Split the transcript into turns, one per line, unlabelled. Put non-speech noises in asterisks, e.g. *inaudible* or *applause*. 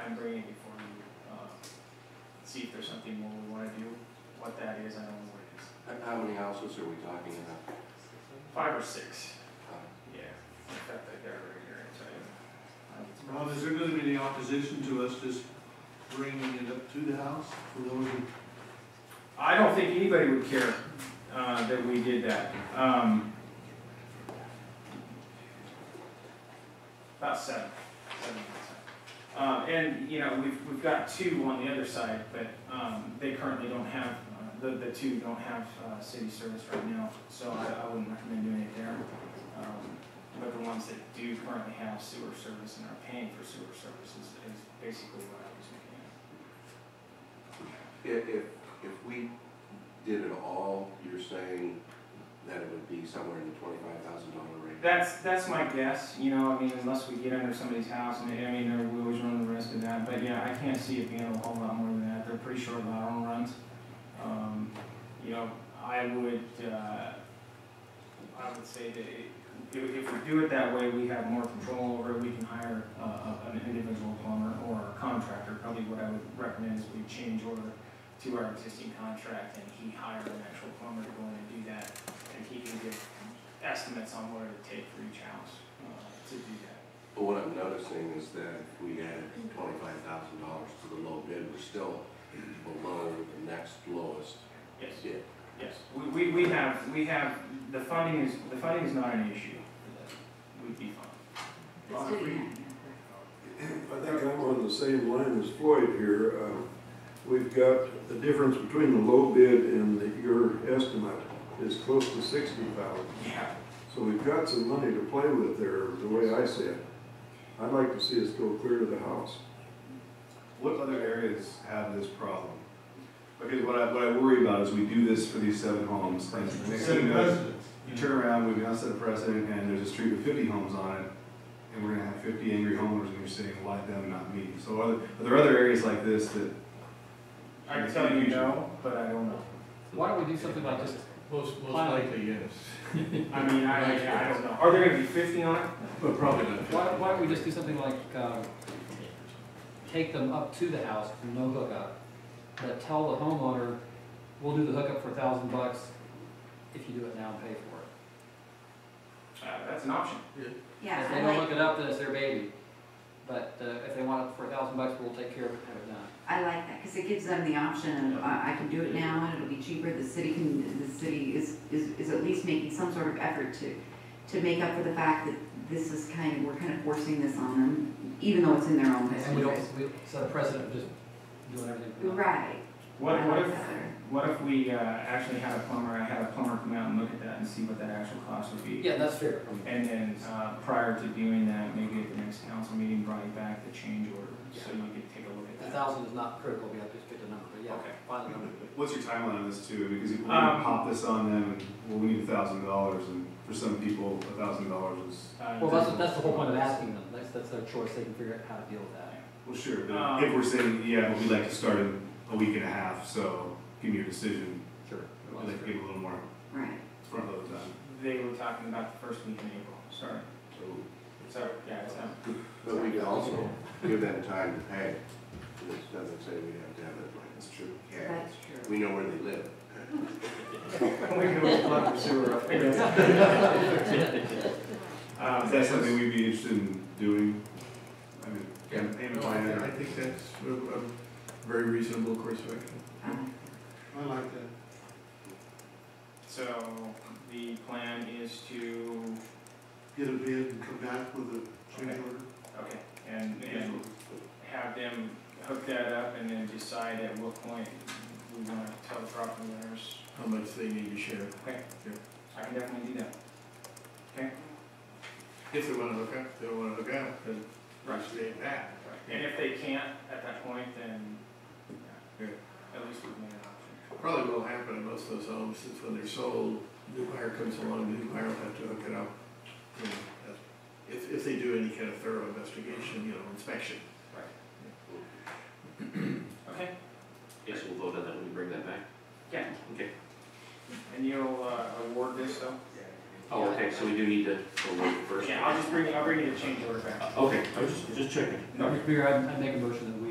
uh, see if there's something more we wanna do, what that is, I don't know what it is.
How- How many houses are we talking about?
Five or six,
Uh,
yeah, I've got that there right here, it's right. Um, it's
Rob,
probably-
is there gonna be any opposition to us just bringing it up to the house for those who?
I don't think anybody would care, uh, that we did that, um. About seven, seven percent. Uh, and, you know, we've, we've got two on the other side, but, um, they currently don't have, uh, the, the two don't have, uh, city service right now, so I, I wouldn't recommend doing it there. Um, But the ones that do currently have sewer service and are paying for sewer services is basically what I was looking at.
If, if, if we did it all, you're saying that it would be somewhere in the twenty-five thousand dollar range?
That's, that's my guess, you know, I mean, unless we get under somebody's house, and I mean, there- we always run the risk of that, but yeah, I can't see it being a whole lot more than that, they're pretty short lateral runs. Um, you know, I would, uh, I would say that it- if, if we do it that way, we have more control over it, we can hire, uh, a- an individual plumber or a contractor, probably what I would recommend is we change order to our existing contract, and he hire an actual plumber to go in and do that, and he can give estimates on what it would take for each house uh, to do that.
But what I'm noticing is that if we added twenty-five thousand dollars to the low bid, we're still below the next lowest
Yes,
bid.
yes. We, we, we have, we have, the funding is, the funding is not an issue. We'd be fine.
Let's do that.
I think I'm on the same line as Floyd here. Um, We've got the difference between the low bid and the- your estimate is close to sixty thousand.
Yeah.
So we've got some money to play with there, the way I see it. I'd like to see us go clear to the house.
What other areas have this problem? Because what I, what I worry about is we do this for these seven homes, and next thing you know, you turn around, we've now set a precedent, and there's a street with fifty homes on it, and we're gonna have fifty angry homeowners, and you're saying, why them, not me? So are there, are there other areas like this that,
I can tell you no, but I don't know.
Why don't we do something like this?
Most, most
Pilot.
likely, yes.
I mean, I, I don't know. Are there gonna be fifty on it?
*laughs* But probably not.
Why, why don't we just do something like, uh, take them up to the house, no hookup, but tell the homeowner, we'll do the hookup for a thousand bucks if you do it now and pay for it.
Uh, that's an option.
Yeah,
If
I
they don't
like,
hook it up, then it's their baby. But, uh, if they want it for a thousand bucks, we'll take care of it and have it done.
I like that, because it gives them the option of, uh, I, I can do it now, and it'll be cheaper, the city can, the city is, is, is at least making some sort of effort to, to make up for the fact that this is kind of, we're kind of forcing this on them, even though it's in their own best
And we
interest.
don't, we set a precedent of just doing everything. for nothing.
Right.
What,
I
what
like
if,
that better.
what if we, uh, actually had a plumber, I had a plumber come out and look at that and see what that actual cost would be?
Yeah, that's fair.
And then, uh, prior to doing that, maybe at the next council meeting, bring back the change order, so you could take a look at
A
that.
thousand is not critical, we have to just pick the number, but yeah,
Okay.
find the number.
what's your timeline on this too? Because if we're
Um,
gonna pop this on them, and, well, we need a thousand dollars, and for some people, a thousand dollars is,
Uh,
Well, that's, that's the whole point of asking them, that's, that's their choice, they can figure out how to deal with that.
well, sure,
Um,
but if we're saying, yeah, but we'd like to start in a week and a half, so give me your decision,
Sure.
we'd like to give a little more
Right.
front load time.
They were talking about the first week in April, sorry. So, yeah, it's, um,
But we could also give them time to pay. This doesn't say we have to have it like
That's true.
Yeah,
That's true.
we know where they live.
we can plug the sewer up. Um,
*laughs* Is that something we'd be interested in doing? I mean,
Yeah.
and- and
No, I
plan
think-
or-
I think that's a, a very reasonable course of action.
I like
I like that.
So, the plan is to,
Get a bid and come back with a change
Okay.
order.
okay, and, and have them hook that up and then decide at what point we wanna tell the property owners.
How much they need to share,
I can definitely do that.
if they wanna look up, they'll wanna look up, cause we're saying that.
And if they can't at that point, then, yeah, at least we've made an option.
Probably will happen in most of those homes, since when they're sold, new buyer comes along, the new buyer will have to hook it up. you know, that's- If, if they do any kind of thorough investigation, you know, inspection.
Okay,
Yes, we'll vote on that when we bring that back.
yeah.
Okay.
And you'll, uh, award this though?
Oh, okay, so we do need to award it first.
Yeah, I'll just bring, I'll bring you the change order back.
Okay, I was just- just checking.
No.
Mr. Mayor, I I make a motion that we